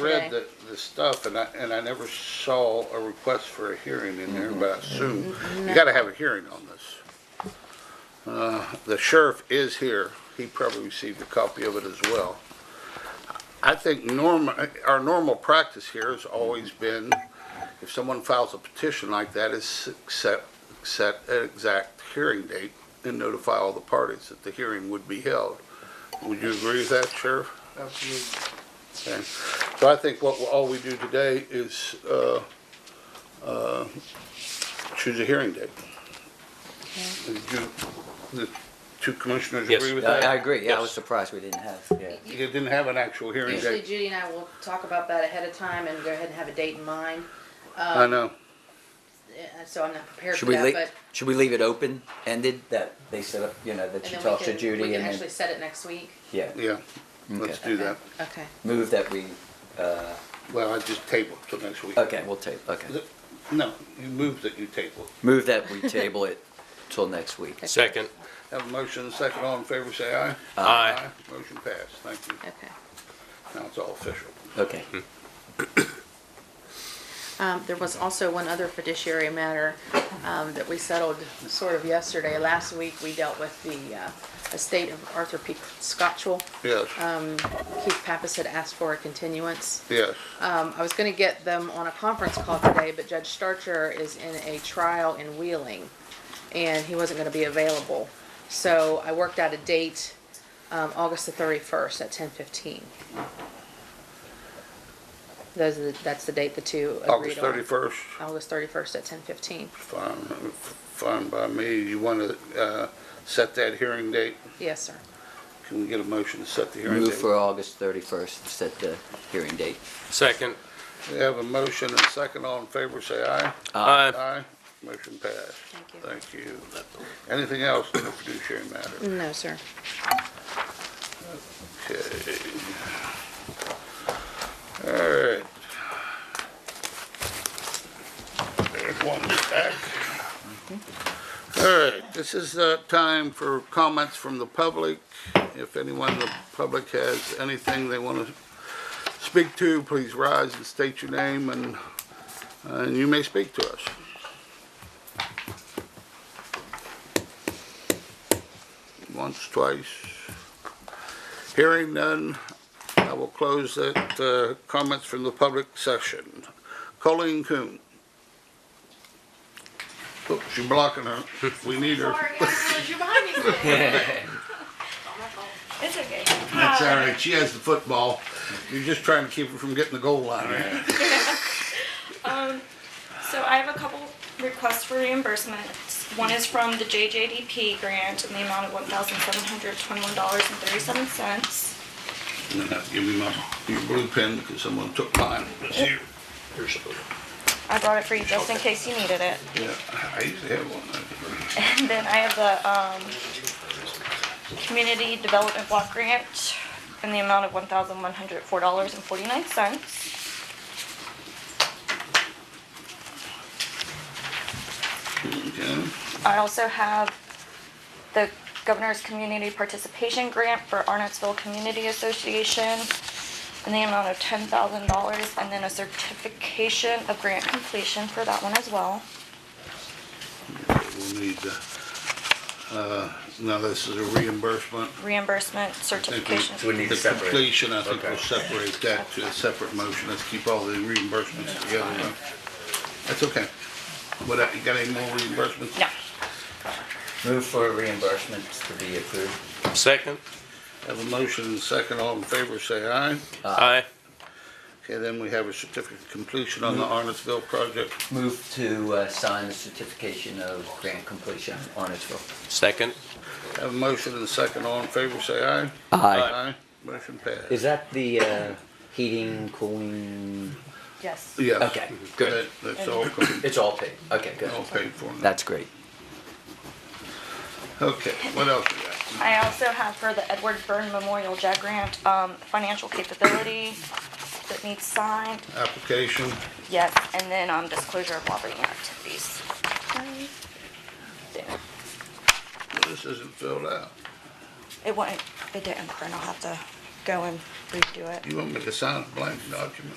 read today. the, the stuff and I, and I never saw a request for a hearing in there, but I assume you gotta have a hearing on this. Uh, the sheriff is here. He probably received a copy of it as well. I think norm, our normal practice here has always been, if someone files a petition like that, is set, set an exact hearing date and notify all the parties that the hearing would be held. Would you agree with that, Sheriff? Absolutely. Okay, so I think what, all we do today is, uh, uh, choose a hearing date. Did you, the two commissioners Yes. agree with I, I that? agree, yeah, I was Yes. surprised we didn't have, yeah. You didn't have an actual hearing Usually date. Judy and I will talk about that ahead of time and go ahead and have a date in mind, I know, uh, so I'm not prepared for Should we that, leave, but. should we leave it open, ended, that they set up, you know, that and you then we talk to can- We Judy can and actually then, set it next week. yeah, yeah, let's Okay. do that. Okay. move that we, uh, Well, I just table it till next week. okay, we'll table, okay. The- No, you move that you table. it. Move that we table it till next week. Second. Have a motion, and a second, all in favor, say aye. Aye. Motion passed, thank you. Okay. Now it's all official. Okay, Um, there was also one other fiduciary matter, um, that we settled sort of yesterday. Last week, we dealt with the, uh, estate of Arthur P. Scotchwell. Yes, Keith Pappas had asked for a continuance. yes, Um, I was gonna get them on a conference call today, but Judge Starcher is in a trial in Wheeling, and he wasn't gonna be available. So I worked out a date, um, August the thirty-first at ten fifteen. Those are, the- that's the date the two August agreed on. thirty-first. August thirty-first at ten fifteen, Fine, fine by me. You want to uh, set that hearing date? yes, sir. Can we get a motion to set the hearing move date? for August thirty-first, set the hearing date. Second. We have a motion and second. All in favor, say aye. Aye. Aye. Motion passed. Thank you. Thank you. Anything else in the fiduciary matter? No, sir. Okay. All right. There's one back. Mm-hmm. All right, this is uh time for comments from the public. If anyone in the public has anything they want to speak to, please rise and state your name and, uh, and you may speak to us. Once, twice. Hearing none, I will close that, uh, comments from the public session. Colleen Coon. Oops, you're blocking her. We need her. Sorry, I realized you're behind me. It's okay. That's all right. She has the football. You're just trying to keep her from getting the goal line. right? So I have a couple requests for reimbursement. One is from the JJDP grant in the amount of one thousand seven hundred twenty-one dollars and thirty-seven cents. No, no, Give me my, your blue pen because someone took mine. It's here. Here's the- I brought it for you just in case you needed it. Yeah, I used to have one. And then I have the, um, Community Development Block Grant in the amount of one thousand one hundred four dollars and forty-nine cents. Okay. I also have the Governor's Community Participation Grant for Arnottsville Community Association in the amount of ten thousand dollars, and then a certification of grant completion for that one as well. We'll need, uh, uh, now this is a reimbursement. Reimbursement I think we- certification. The completion, I think we'll separate that to a separate motion, let's keep all the reimbursements together. though. That's okay. What, uh, you got any more reimbursements? No, Move for reimbursements to be approved. Second. Have a motion and a second, all in favor, say aye. Aye. Okay, then we have a certificate of completion on the Arnottsville project. Move to, uh, sign the certification of grant completion, Arnottsville. Second. Have a motion and a second, all in favor, say aye. Aye. Aye, motion passed. Uh, Is that the, uh, heating, cooling? Yes. Yes. Okay, good. That- That's all, com- It's all paid, okay, good. all paid for now. That's great. Okay, what else we got? I also have for the Edward Byrne Memorial JAG Grant, um, financial capability that needs signed, Application, yes, and then, um, disclosure of lobbying activities. There. this isn't filled out. It wouldn't, it didn't print, I'll have to go and redo it. You want me to sign a blank document?